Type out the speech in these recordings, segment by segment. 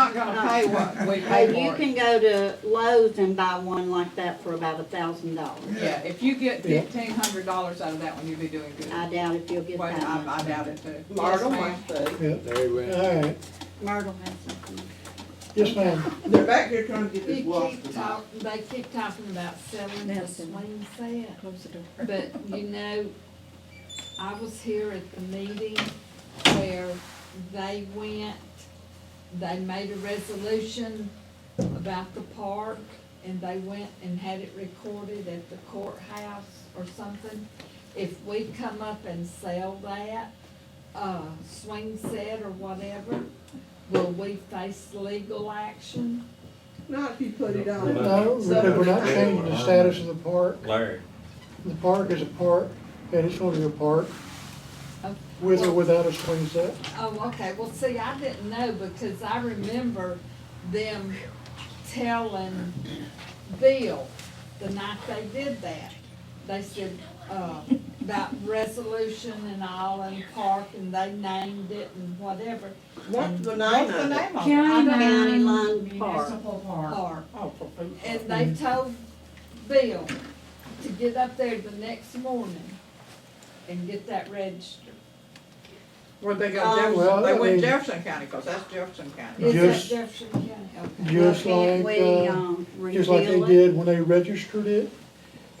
gonna pay what we Or pay you for it. can go to Lowe's and buy one like that for about a thousand dollars. Yeah, if you get fifteen hundred dollars out of that one, you'll be doing good. I doubt if you'll get Well, I, that I much. doubt it too. Marta Yes, ma'am. wants to. Yep, There we went. all right. Myrtle has something. Yes, ma'am. They're back here trying to get They this water. keep talk, they keep talking about selling the Nelson. swing set, Close the door. but you know, I was here at the meeting where they went, they made a resolution about the park, and they went and had it recorded at the courthouse or something. If we come up and sell that, uh, swing set or whatever, will we face legal action? Not if you put it on. No, because we're not changing the status of the park. Larry, The park is a park, and it's gonna be a park, Okay. with or without a swing set. Oh, okay, well, see, I didn't know because I remember them telling Bill the night they did that. They said, uh, about resolution and all and park and they named it and whatever, What's the What's name the of it? name of it? County County Line Park. park. Oh, for Pete's sake. And they told Bill to get up there the next morning and get that registered. Where'd they go, Um, Jefferson, Well, they I went mean- Jefferson County, cause that's Jefferson County. Is that Just- Jefferson County? Okay. Well, Just can't like, we, uh, um, Just like they reveal it? did when they registered it,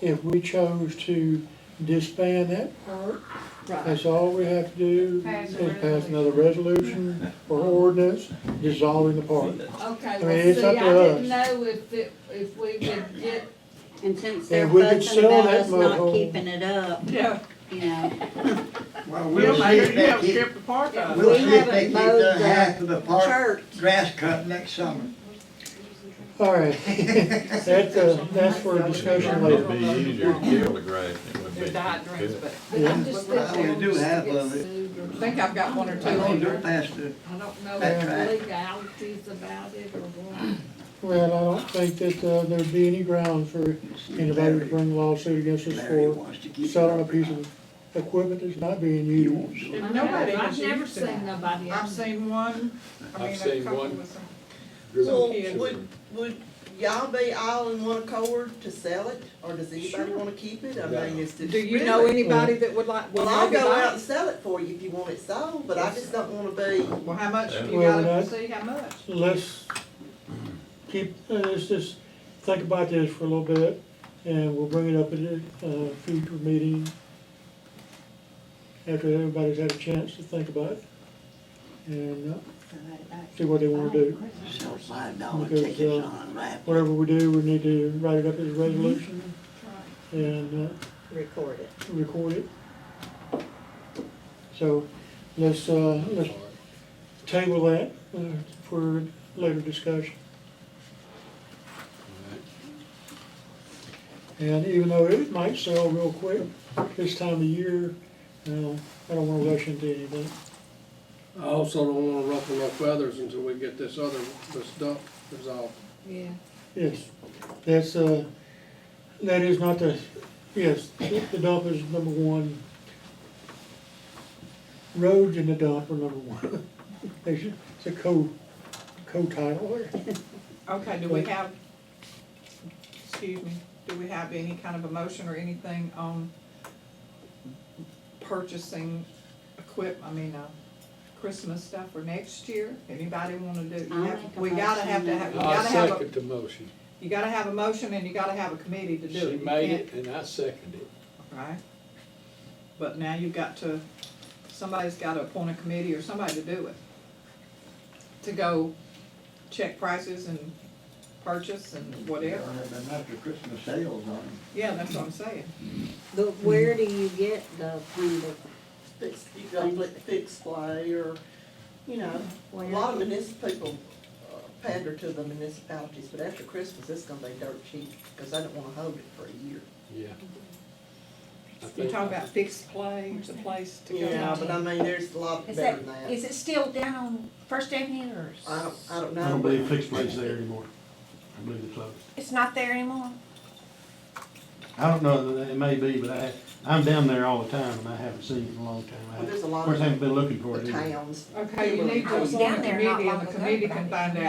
if we chose to disband that park, Right, that's all we have to do Pass is a pass another resolution or ordinance dissolving the park. okay, mean, well, it's see, I up to didn't us. know if it, if we would get And since they're And we could fussing sell about that us not mobile. keeping it up, Yeah, you know, Well, we'll we'll see make it, if we'll they keep, strip the park out. we'll We see if haven't they keep mowed the the half of the park uh, church. grass cut next summer. All right, that's, uh, that's for discussion it'd later. be easier to kill the grass than it would be. There's to diet cut drinks, it. but But I'm just Well, thinking we I'm do just have gonna of get it. sued or I think I've got one or two I don't do here. past the, I don't know That's if right. legalities about it or what. Well, I don't think that, uh, there'd be any ground for anybody to bring a lawsuit against us Larry for wants to keep. selling a piece of equipment that's not being He used. won't do it. If Nobody I've has never used to seen that. nobody. I've else. seen one, I mean, I've a seen couple one. with some. So kids. would, would y'all be all in one accord to sell it, or does anybody wanna keep it? I mean, it's just. Do you know really- anybody that would like? Well, would I'll maybe go buy out it? and sell it for you if you want it sold, but I just don't wanna be, Well, how much, you gotta Well, that's- see how much. let's keep, uh, let's just think about this for a little bit, and we'll bring it up at a uh, future meeting after everybody's had a chance to think about it, and uh, see what they wanna do. Sell five dollar Because, tickets uh, on a raffle. Whatever we do, we need to write it up as a resolution and uh, record it. record it. So, let's, uh, let's table that uh, for later discussion. And even though it might sell real quick this time of year, you know, I don't wanna rush into anything. I also don't wanna ruffle no feathers until we get this other, this dump resolved. Yeah, Yes, that's, uh, that is not the, yes, the dump is number one. Roads and the dump are number one. They should, it's a co, co-title there. Okay, do we have, excuse me, do we have any kind of a motion or anything on purchasing equip, I mean, uh, Christmas stuff for next year? Anybody wanna do? you I'll have- make a We gotta have to motion. have, you I gotta have, a second the motion. you gotta have a motion and you gotta have a committee to do it. She You made can't- it and I seconded it. Right? But now you've got to, somebody's gotta appoint a committee or somebody to do it. To go check prices and purchase and They're whatever. after Christmas sales on them. Yeah, that's what I'm saying. but where do you get the kind of, Fix, you go flick, fix play, or, you know, a lot of municipal people uh, pander to the municipalities, but after Christmas, it's gonna be dirt cheap, cause I don't wanna hold it for a year. Yeah. I You're think- talking about fixed play, it's a place to go. Yeah, but I mean, there's a lot Is better that, than that. is it still down on First Avenue or? s- I don't, I don't know. I don't believe fixed plates there anymore. I believe it's closed. It's not there anymore? I don't know, that it may be, but I, I'm down there all the time and I haven't seen it in a long time. I- Well, there's a lot Of course, I of haven't been looking for it the either. towns Okay, you need to Down appoint a there not committee long and the ago, committee but I can didn't find out